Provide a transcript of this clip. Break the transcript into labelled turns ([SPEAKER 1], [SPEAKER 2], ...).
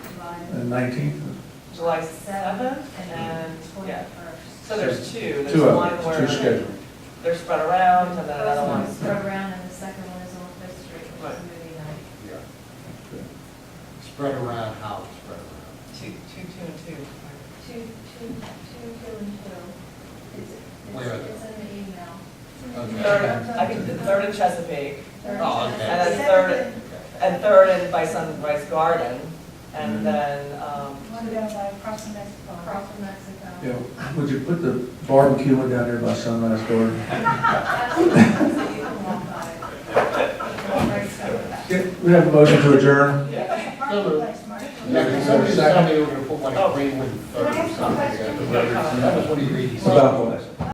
[SPEAKER 1] nineteenth?
[SPEAKER 2] July seventh, and then,
[SPEAKER 3] Mm-hmm.
[SPEAKER 2] yeah,
[SPEAKER 3] Twenty-first.
[SPEAKER 2] so there's two, there's
[SPEAKER 1] Two of
[SPEAKER 2] one
[SPEAKER 1] them, two
[SPEAKER 2] where
[SPEAKER 1] scheduled.
[SPEAKER 2] they're spread around, and then another
[SPEAKER 3] First
[SPEAKER 2] one.
[SPEAKER 3] one's program and the second one is on Fifth Street, which is
[SPEAKER 2] Right.
[SPEAKER 3] movie night.
[SPEAKER 4] Yeah. Spread around, how it's spread around.
[SPEAKER 2] Two, two, two, and two.
[SPEAKER 3] Two, two, two, two and two. It's,
[SPEAKER 4] Where
[SPEAKER 3] it's
[SPEAKER 4] are they?
[SPEAKER 3] it's in the email.
[SPEAKER 2] Mm-hmm.
[SPEAKER 4] Okay.
[SPEAKER 2] Third, I think the third in Chesapeake,
[SPEAKER 3] Third
[SPEAKER 4] Oh,
[SPEAKER 3] and-
[SPEAKER 4] okay.
[SPEAKER 2] And then
[SPEAKER 3] second
[SPEAKER 2] third-
[SPEAKER 4] Okay.
[SPEAKER 2] and third in by Sunrise Garden,
[SPEAKER 1] Mm.
[SPEAKER 2] and then, um,
[SPEAKER 5] What about by uh, crossing that uh,
[SPEAKER 3] and
[SPEAKER 5] bar?
[SPEAKER 3] Across from Mexico.
[SPEAKER 1] Yeah, would you put the barbecue one down there by Sunrise Door?
[SPEAKER 3] Absolutely, so you can walk by it.
[SPEAKER 5] Very excited about that.
[SPEAKER 1] Okay, We have a motion to adjourn.
[SPEAKER 5] Yeah, the
[SPEAKER 4] So moved.
[SPEAKER 5] marketplace, marketplace.
[SPEAKER 4] Yeah, because somebody, somebody were gonna put like
[SPEAKER 2] Oh.
[SPEAKER 4] Greenwood Third or something.
[SPEAKER 5] Can I ask a question?
[SPEAKER 4] together. That was one of your.
[SPEAKER 1] About what?